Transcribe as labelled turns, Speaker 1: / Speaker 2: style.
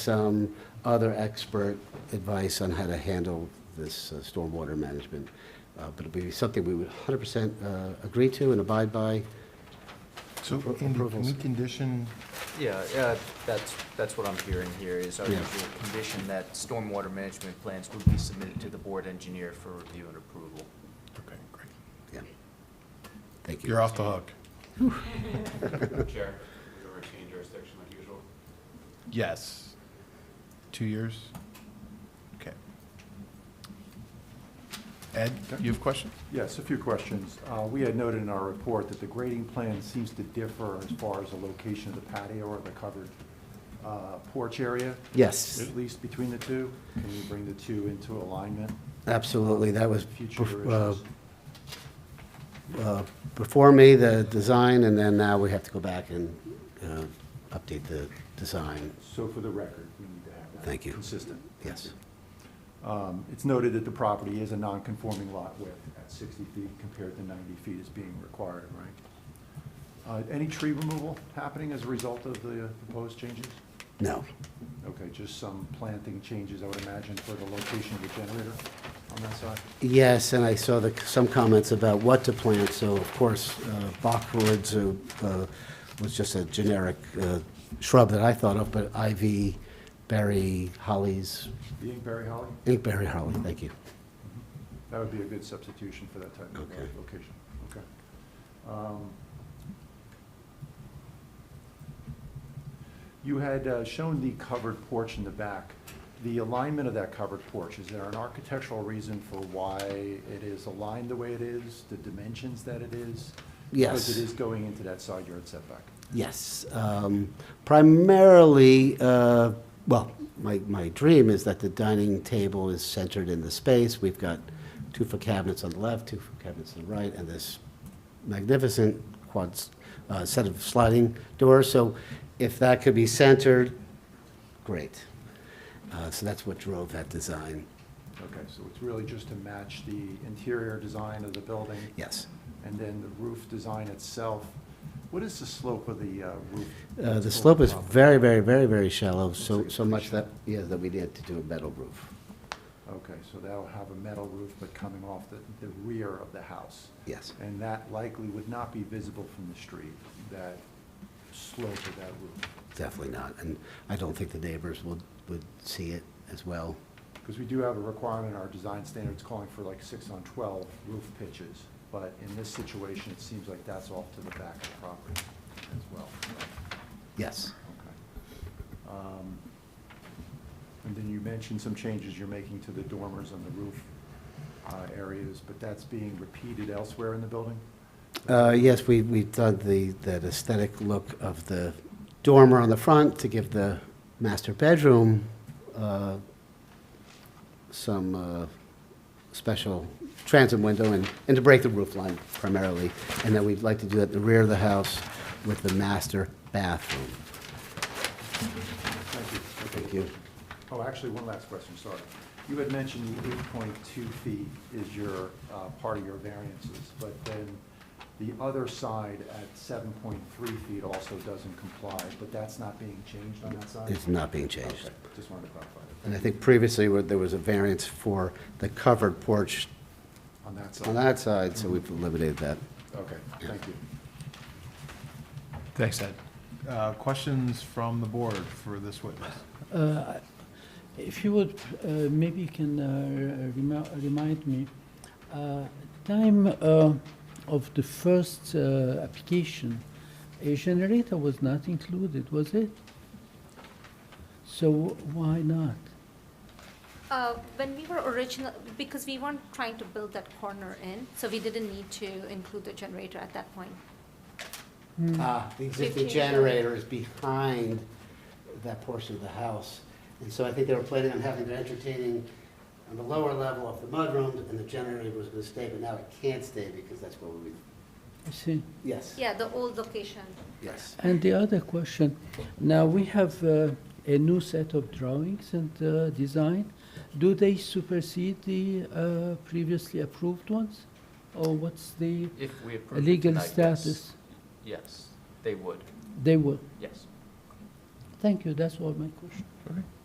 Speaker 1: some other expert advice on how to handle this uh, stormwater management. Uh, But it'd be something we would 100% uh, agree to and abide by.
Speaker 2: So,
Speaker 1: Appro-
Speaker 2: Andy, can
Speaker 1: approvals.
Speaker 2: we condition,
Speaker 3: Yeah, yeah, that's, that's what I'm hearing here, is our
Speaker 1: Yeah.
Speaker 3: usual condition that stormwater management plans will be submitted to the board engineer for review and approval.
Speaker 2: okay, great.
Speaker 1: Yeah. Thank you.
Speaker 2: You're off the hook.
Speaker 4: Chair, we retain jurisdiction like usual.
Speaker 2: Yes. Two years? Okay. Ed, you have questions?
Speaker 5: Yes, a few questions. Uh, We had noted in our report that the grading plan seems to differ as far as the location of the patio or the covered uh, porch area,
Speaker 1: Yes,
Speaker 5: at least between the two. Can you bring the two into alignment?
Speaker 1: absolutely. That was
Speaker 5: Future
Speaker 1: bef- uh,
Speaker 5: issues.
Speaker 1: uh, before me, the design, and then now we have to go back and uh, update the design.
Speaker 5: So for the record, we need to have that.
Speaker 1: Thank you.
Speaker 5: Consistent.
Speaker 1: Yes.
Speaker 5: Um, It's noted that the property is a non-conforming lot width at 60 feet compared to 90 feet is being required, right? Uh, Any tree removal happening as a result of the proposed changes?
Speaker 1: No.
Speaker 5: Okay, just some planting changes, I would imagine, for the location of the generator on that side?
Speaker 1: Yes, and I saw the, some comments about what to plant, so of course, uh, boxwoods uh, uh, was just a generic uh, shrub that I thought of, but ivy, berry, hollies,
Speaker 5: Being berry holly,
Speaker 1: inkberry holly, thank you.
Speaker 5: that would be a good substitution for that type of uh,
Speaker 1: Okay.
Speaker 5: location, okay. Um, You had uh, shown the covered porch in the back. The alignment of that covered porch, is there an architectural reason for why it is aligned the way it is, the dimensions that it is?
Speaker 1: Yes.
Speaker 5: Because it is going into that side yard setback.
Speaker 1: Yes, um, primarily, uh, well, my, my dream is that the dining table is centered in the space. We've got two foot cabinets on the left, two foot cabinets on the right, and this magnificent quad, uh, set of sliding doors. So if that could be centered, great. Uh, so that's what drove that design,
Speaker 5: Okay, so it's really just to match the interior design of the building?
Speaker 1: yes.
Speaker 5: And then the roof design itself, what is the slope of the uh, roof?
Speaker 1: Uh, the slope is
Speaker 5: Proper.
Speaker 1: very, very, very, very shallow, so,
Speaker 5: like it's
Speaker 1: so
Speaker 5: pretty
Speaker 1: much that,
Speaker 5: shallow.
Speaker 1: yeah, that we need to do a metal roof.
Speaker 5: Okay, so that'll have a metal roof, but coming off the, the rear of the house.
Speaker 1: Yes.
Speaker 5: And that likely would not be visible from the street, that slope of that roof.
Speaker 1: Definitely not, and I don't think the neighbors would, would see it as well.
Speaker 5: Because we do have a requirement in our design standards calling for like six on 12 roof pitches, but in this situation, it seems like that's off to the back of the property as well.
Speaker 1: Yes,
Speaker 5: Okay. Um, And then you mentioned some changes you're making to the dormers on the roof uh, areas, but that's being repeated elsewhere in the building?
Speaker 1: uh, yes, we, we've done the, that aesthetic look of the dormer on the front to give the master bedroom, uh, some, uh, special transom window and, and to break the roof line primarily. And then we'd like to do that at the rear of the house with the master bathroom.
Speaker 5: Thank you.
Speaker 1: Thank you.
Speaker 5: Oh, actually, one last question, sorry. You had mentioned the 8.2 feet is your, uh, part of your variances, but then the other side at 7.3 feet also doesn't comply, but that's not being changed on that side?
Speaker 1: It's not being changed.
Speaker 5: Okay, Just wanted to clarify
Speaker 1: And I think previously where there was a variance for the covered porch
Speaker 5: that on that side.
Speaker 1: on that side, so we've eliminated that.
Speaker 5: Okay, thank you.
Speaker 2: Thanks, Ed. Uh, Questions from the board for this witness?
Speaker 6: Uh, If you would, uh, maybe you can uh, re- remi- remind me, uh, time uh, of the first uh, application, a generator was not included, was it? So why not?
Speaker 7: Uh, When we were original, because we weren't trying to build that corner in, so we didn't need to include the generator at that point.
Speaker 1: Ah, the existing generator is behind that portion of the house. And so I think they were planning on having, they entertaining on the lower level of the mudroom, and the generator was gonna stay, but now it can't stay because that's where we,
Speaker 6: I see.
Speaker 1: yes,
Speaker 7: Yeah, the old location.
Speaker 1: yes.
Speaker 6: And the other question, now we have uh, a new set of drawings and uh, design. Do they supersede the uh, previously approved ones? Or what's the
Speaker 3: If we approve it
Speaker 6: legal
Speaker 3: tonight, yes.
Speaker 6: status?
Speaker 3: Yes, they would,
Speaker 6: They will.
Speaker 3: yes.
Speaker 6: Thank you, that's all my question.